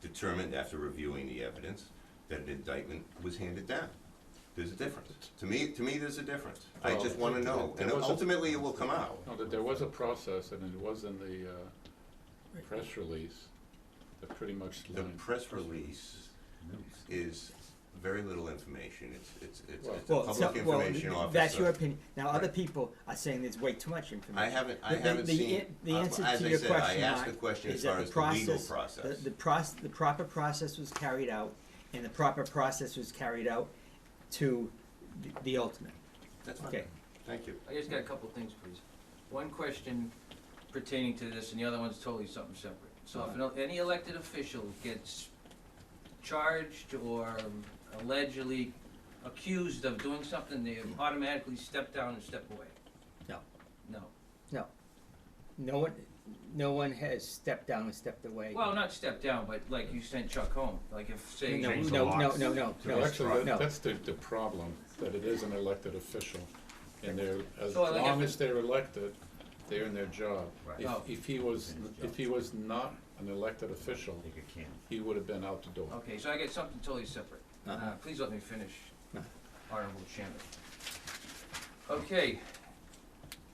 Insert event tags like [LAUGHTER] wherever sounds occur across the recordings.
determined after reviewing the evidence that an indictment was handed down. There's a difference. To me, to me, there's a difference. I just Well, wanna know, there and was a- ultimately it will come out. No, that there was a process, and it was in the uh, press release that pretty much The lined. press release is very little information. It's, it's, it's, it's a Well, so- public well, information th- officer. that's your opinion. Now, other Right. people are saying there's way too much information. I haven't, I The- the- haven't the seen, an- the uh, answer as to I your said, I question, asked Mark, the question as is that far the as the legal process- The, process. the proc- the proper process was carried out, and the proper process was carried out to the, the ultimate. That's fine. Okay. Thank you. I just got a couple things, please. One question pertaining to this, and the other one's totally something separate. So if an- any elected official gets charged or allegedly accused of doing something, they automatically step down and step away? No. No. No one, no one has stepped down and stepped away. Well, not step down, but like you sent Chuck home, like if, no, say. no, Change the no, no, locks. no, no, So no, actually, no. that- that's the, the problem, that it is an elected official, and they're, as So, like, long if- as they're elected, they're in their job. Right. If, Oh. if he was, if he was not an elected official, think it can. he would have been out the door. Okay, so I get something totally separate. Uh-huh. Uh, please let me finish, Uh-huh. Honorable Chairman. Okay,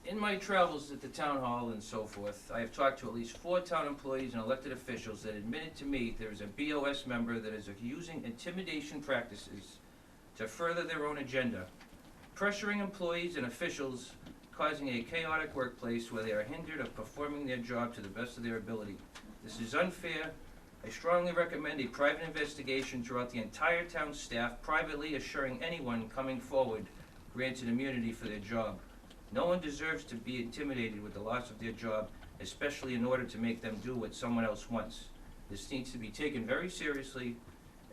in my travels at the town hall and so forth, I have talked to at least four town employees and elected officials that admitted to me there is a BOS member that is using intimidation practices to further their own agenda, pressuring employees and officials, causing a chaotic workplace where they are hindered of performing their job to the best of their ability. This is unfair I strongly recommend a private investigation throughout the entire town staff, privately assuring anyone coming forward granted immunity for their job. No one deserves to be intimidated with the loss of their job, especially in order to make them do what someone else wants. This needs to be taken very seriously,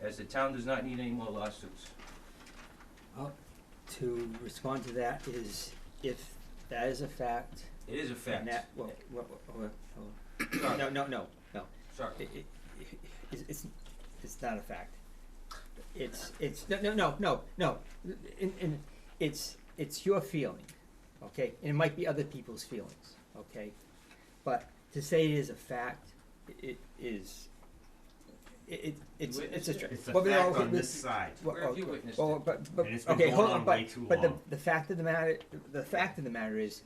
as the town does not need any more lawsuits. To respond to that is if that is a fact, It is a and fact. that, well, well, well, well, [COUGHS] Sorry, no, no, no, no. Sorry. It- it- it's, it's, it's not a fact. It's, it's, no, no, no, no, no, and, and it's, it's your feeling, okay? And it might be other people's feelings, okay? But to say it is a fact, i- it is, it, it, it's, it's a stretch. It's a Well, but no, fact okay, on but- this side. well, Where have you okay. witnessed Well, it? but, but, And it's been okay, going hold on on, but, way too but the, long. the fact of the matter, the fact of the matter is,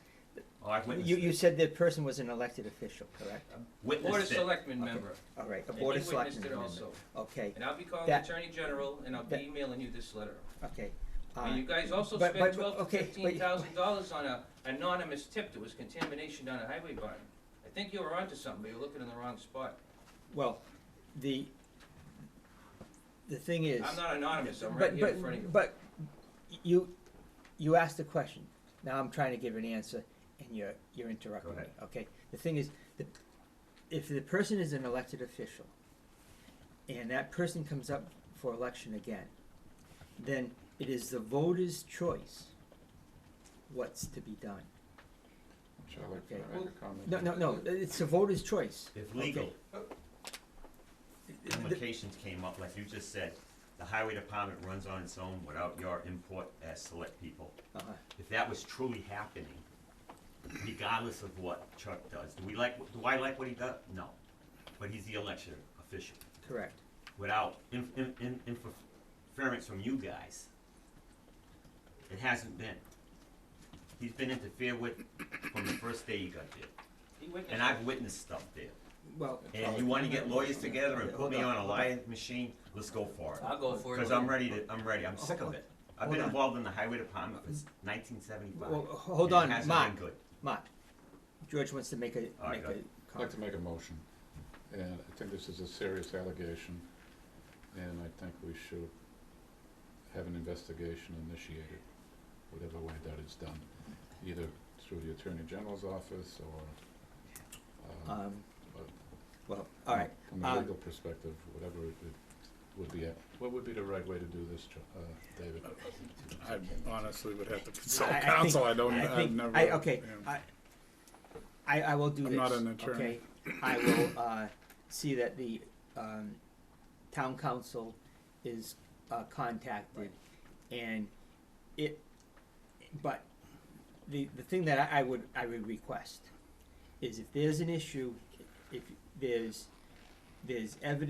Oh, I you, you said the person was an elected official, correct? Board of Witnessed it. Selectmen Okay. member, All right, a and board of you witnessed selectmen it member. also. Okay, And I'll be calling the That- Attorney General, and I'll that- be emailing you this letter. okay. And uh, you guys also But- spent but- but- twelve to okay, but- fifteen thousand dollars on a anonymous tip that was contamination down a highway barn. I think you were onto something, but you're looking in the wrong spot. Well, the, the thing is. I'm not anonymous, I'm right But, here in front of but, you. but you, you asked a question. Now I'm trying to give an answer and you're, you're interrupting Go me, ahead. okay? The thing is, the, if the person is an elected official and that person comes up for election again, then it is the voter's choice what's to be done. Charlie, can Okay. I make a comment? No, no, no, it's the voter's choice. If Okay. legal The- the- implications came up, like you just said, the highway department runs on its own without your input as select people. uh-huh. If that was truly happening, regardless of what Chuck does, do we like, do I like what he does? No. But he's the election official. Correct. without in, in, in, interference from you guys. It hasn't been. He's been interfered with from the first day he got there, He witnessed and it. I've witnessed stuff there. Well, And you want to get lawyers together and put me on a lying machine? Let's go for it. I'll go for it. Because I'm ready to. I'm ready. I'm sick of it. I've been involved in the highway department since 1975. well, hold and on, It hasn't Mark. been good. Mark, George wants to make a, make All right, a go comment. ahead. I'd like to make a motion, and I think this is a serious allegation, and I think we should have an investigation initiated, whatever way that is done, either through the Attorney General's office or, uh, Um, uh, well, all right, From a uh, legal perspective, whatever it would- would be, uh, what would be the right way to do this, Cho- uh, David? I honestly would have to [LAUGHS] consult I- I think- counsel, I don't, I I've think, never. I, okay, yeah. I, I, I will do this, I'm okay? not an attorney. I will, uh, see that the, um, town council is, uh, contacted, and it, but the, the thing that I, I would, I would request is if there's an issue, if there's, there's evidence